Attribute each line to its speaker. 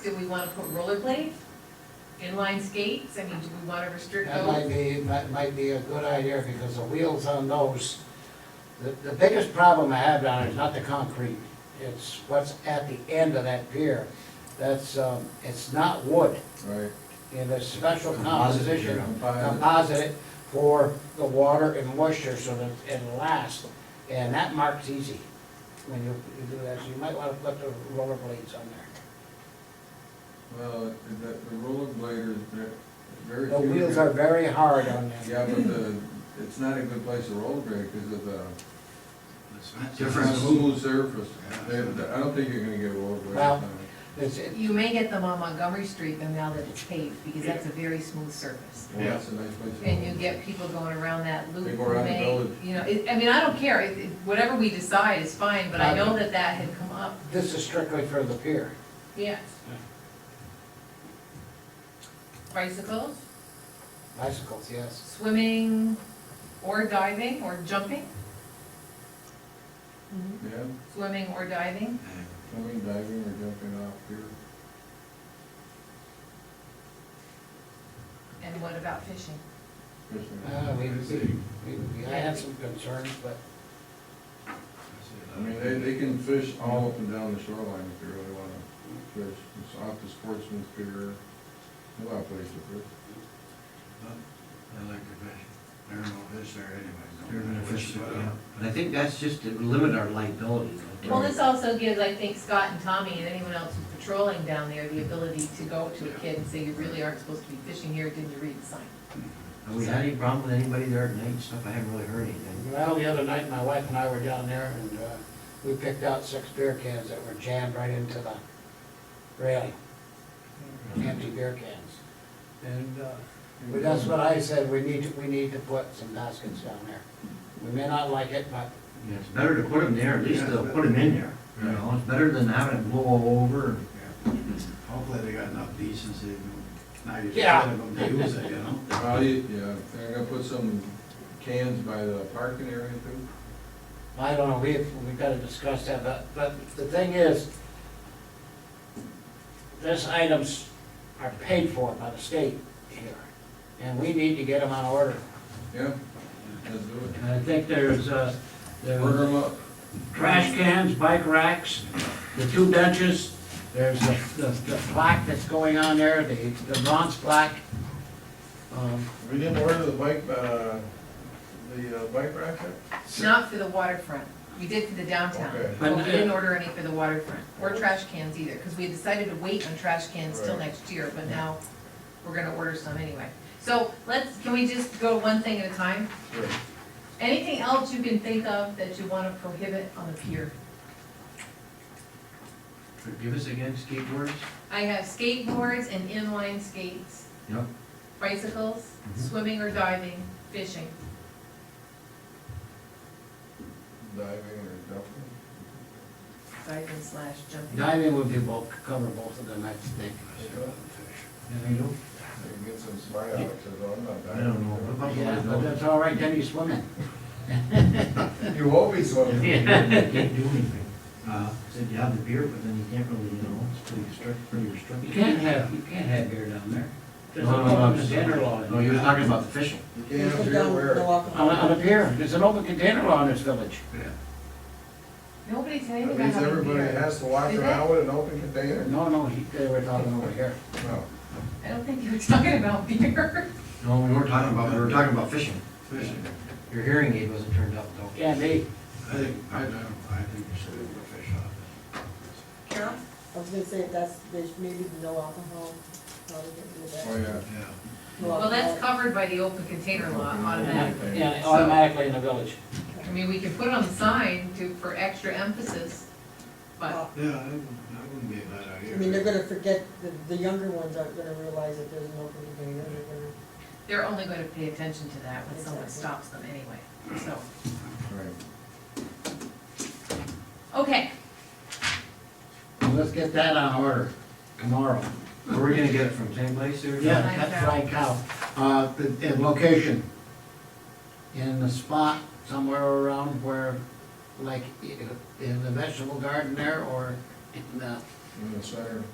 Speaker 1: do we wanna put rollerblades? Inline skates, I mean, do we wanna restrict
Speaker 2: That might
Speaker 1: those?
Speaker 2: be, that might be a good idea, because the wheels on those, the, the biggest problem I have down there is not the concrete. It's what's at the end of that pier. That's, um, it's not wood,
Speaker 3: Right.
Speaker 2: and it's special
Speaker 3: Composite,
Speaker 2: composition,
Speaker 3: yeah.
Speaker 2: composite for the water and moisture, so that it lasts. And that marks easy when you, you do that, so you might wanna put the roller blades on there.
Speaker 3: Well, the, the roller bladers, they're very.
Speaker 2: The
Speaker 3: few
Speaker 2: wheels
Speaker 3: there.
Speaker 2: are very hard on them.
Speaker 3: Yeah, but the, it's not a good place to roller blade because of the.
Speaker 4: Different
Speaker 3: it's not a Smooth
Speaker 4: schools.
Speaker 3: surface. They, I don't think you're gonna get a roller blade.
Speaker 2: Well-
Speaker 3: on
Speaker 2: It's, it,
Speaker 1: You may get them on Montgomery Street, but now that it's paved, because that's a very smooth surface.
Speaker 3: it. Well, that's a nice place. to
Speaker 1: And you
Speaker 3: roller
Speaker 1: get people going around that loop,
Speaker 3: They go around the
Speaker 1: may-
Speaker 3: village.
Speaker 1: you know, it, I mean, I don't care, It- it- whatever we decide is fine, but I know that that had come up,
Speaker 2: this is strictly for the pier.
Speaker 1: yes. Bicycles,
Speaker 2: Bicycles, yes.
Speaker 1: swimming, or diving, or jumping,
Speaker 3: blade. Yeah,
Speaker 1: swimming or diving,
Speaker 3: swimming, diving, or jumping off here.
Speaker 1: and what about fishing?
Speaker 3: fishing.
Speaker 2: Uh, we, we, we- I had some concerns, but
Speaker 3: I mean, they, they can fish all up and down the shoreline if they really wanna fish. It's off the sportsman's pier, a lot of places to fish.
Speaker 4: I like to fish. There are no fish there anyway.
Speaker 5: They're gonna fish,
Speaker 4: Well,
Speaker 5: yeah. And I think that's just to limit our liability. though.
Speaker 1: Well, this also gives, I think, Scott and Tommy and anyone else who's patrolling down there the ability to go to a kid and say, you really aren't supposed to be fishing here, didn't you read the sign?
Speaker 5: Have we had any problem with anybody there at night and stuff? I haven't really heard anything.
Speaker 2: Well, the other night, my wife and I were down there and, uh, we picked out six beer cans that were jammed right into the railing. Empty beer cans. And, uh, well, that's what I said, we need, to we need to put some baskets down there. We may not like it, but
Speaker 5: Yeah, It's better to put them there, at least they'll put them in there. You know, it's better than having it blow over.
Speaker 4: Yeah. Hopefully they got enough decency, to- now you're
Speaker 2: Yeah.
Speaker 4: telling them to use it, you know?
Speaker 3: Well, you- yeah, they're gonna put some cans by the parking area too.
Speaker 2: I don't know, we've, we've gotta discuss that, but, but the thing is, these items are paid for by the state here, and we need to get them on order.
Speaker 3: Yeah, let's do it.
Speaker 5: And I think there's, uh, there was-
Speaker 3: Order 'em up.
Speaker 5: trash cans, bike racks, the two benches, there's the, the the plaque that's going on there, the, the bronze plaque. Um,
Speaker 3: We didn't order the bike, uh, the uh, bike rack yet?
Speaker 1: Not for the waterfront, we did for the downtown,
Speaker 3: Okay.
Speaker 1: but we
Speaker 5: But-
Speaker 1: didn't order any for the waterfront, or trash cans either, because we had decided to wait on trash cans till
Speaker 3: Right.
Speaker 1: next year, but now we're gonna order some anyway. So let's, can we just go one thing at a time?
Speaker 3: Sure.
Speaker 1: Anything else you can think of that you wanna prohibit on the pier?
Speaker 5: Forgive us again, skateboards?
Speaker 1: I have skateboards and inline skates.
Speaker 5: Yep.
Speaker 1: Bicycles,
Speaker 3: Mm-hmm.
Speaker 5: Mhm.
Speaker 1: swimming or diving, fishing.
Speaker 3: Diving or jumping?
Speaker 1: Diving slash jumping.
Speaker 2: Diving would be both, cover both of them, I think.
Speaker 3: They can get some smart alecks, although I'm not
Speaker 5: I
Speaker 3: diving.
Speaker 5: don't know. What about the
Speaker 2: Yeah, but
Speaker 5: liability?
Speaker 2: that's all right, then you swim in.
Speaker 3: You always want to.
Speaker 5: Yeah, Can't do anything. Uh, Said you have the beer, but then you can't really, you know, it's pretty restrict, pretty restricted.
Speaker 6: You can't have, you can't have beer down there. There's a
Speaker 5: No, no, no, I'm
Speaker 6: open
Speaker 5: just-
Speaker 6: container law. in
Speaker 5: No, you were
Speaker 6: there.
Speaker 5: talking about the fishing.
Speaker 3: You can't have beer where?
Speaker 2: On, a- on a pier, there's an open container law in this village.
Speaker 1: Nobody's saying
Speaker 3: That
Speaker 1: about
Speaker 3: means
Speaker 1: having
Speaker 3: everybody
Speaker 1: beer.
Speaker 3: has to walk
Speaker 1: Is it?
Speaker 3: around with an open container?
Speaker 2: No, no, he- they were talking over here.
Speaker 3: No.
Speaker 1: I don't think you were talking about beer.
Speaker 5: No, we weren't talking about, we were talking about fishing.
Speaker 4: Fishing,
Speaker 5: Your hearing aid wasn't turned up though.
Speaker 2: Can't be.
Speaker 4: I think, I don't, I think you should have a fish off
Speaker 1: Carol?
Speaker 7: I was gonna say, that's, there's maybe no alcohol, probably didn't do
Speaker 3: Oh,
Speaker 7: that.
Speaker 3: yeah.
Speaker 4: it. Yeah.
Speaker 7: No
Speaker 1: Well, that's
Speaker 7: alcohol.
Speaker 1: covered by the open container law automatically.
Speaker 2: Yeah, automatically in the village.
Speaker 1: I mean, we can put it on the sign to, for extra emphasis, but
Speaker 4: Yeah, that wouldn't- that wouldn't be a bad idea.
Speaker 7: I mean, they're gonna forget, the, the younger ones aren't gonna realize that there's an open container, they're gonna.
Speaker 1: they're only gonna pay attention to that when someone stops them anyway, so.
Speaker 3: Right.
Speaker 1: Okay,
Speaker 2: Well, Let's get that on order tomorrow.
Speaker 5: Where Were we gonna get it from, same place or?
Speaker 2: Yeah, that's Flying Cow. Uh, the, the location, in the spot somewhere around where, like, i- in the vegetable garden there, or in the,
Speaker 3: In the center.